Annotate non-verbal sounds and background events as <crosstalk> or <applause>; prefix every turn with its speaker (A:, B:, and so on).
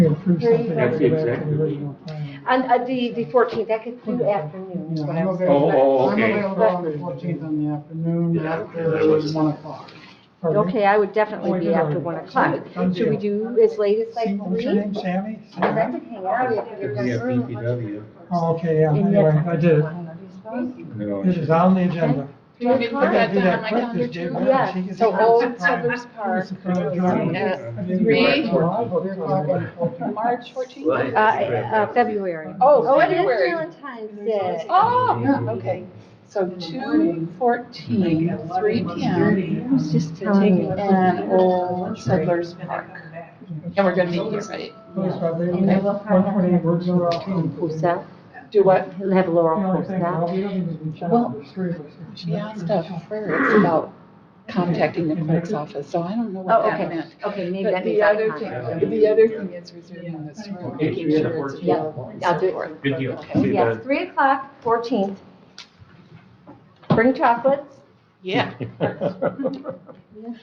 A: approve
B: Three
A: something
B: That's
A: that's away
C: exactly
A: from the
C: what
A: original plan.
B: On, uh, the, the fourteenth, I could do afternoon, is
A: Yeah,
B: what
A: I'm
B: I was
A: available-
B: thinking.
C: Oh, oh, okay.
A: I'm available on the fourteenth in the afternoon,
D: Yeah, I don't care.
A: after one o'clock. Pardon me?
B: Okay, Oh, I would definitely be after one o'clock. Should we do as late
A: See,
B: as like
A: What's
B: three?
A: your name, Sammy?
B: I'd like to hang out if
C: If
B: you're
C: we have
B: gonna-
C: BPW,
A: Oh, okay, yeah,
B: And
A: anyway,
B: yet-
A: I did it.
C: no,
A: It is on the agenda.
E: Do you want me to put
A: I
E: that
A: gotta do
E: down on
A: that
E: my
A: quick,
E: calendar
A: this day,
E: too?
A: man.
B: Yeah,
A: She gets
B: so
A: it.
B: Old
A: Surprise.
E: Settlers Park
A: Surprise,
E: is
A: Jordan.
E: at
A: Maybe
E: three.
A: we're all booked on the 14th.
E: March
D: Well,
E: fourteenth?
B: Uh, uh, February.
E: Oh,
B: it is
E: February.
B: Valentine's Day.
E: Oh, okay. So two fourteen, three P M,
B: It's just
E: taking an Old Settlers Park. And we're gonna meet here, right?
A: Those are the-
B: And I will find out.
A: 128 words are all in.
B: Pusa.
E: Do what?
B: He'll have
A: The
B: Laurel
A: only thing,
B: Pusa.
A: well, we don't even check
E: Well,
A: the three of us.
E: She asked a prayer about contacting the clerk's office, so I don't know
B: Oh,
E: what that
B: okay,
E: meant.
B: okay, maybe
E: But
B: that
E: the
B: means I
E: other
B: can.
C: contact.
E: thing, the other thing is reserving this room,
C: Okay,
E: making
C: three to
E: sure it's
C: fourteen. Yeah,
E: available and
B: I'll do
E: so
B: it.
E: forth.
D: Good deal.
E: Okay.
D: See
B: Yes,
D: that?
B: three o'clock, fourteenth. Bring chocolates.
E: Yeah. <laughs>
C: Sure.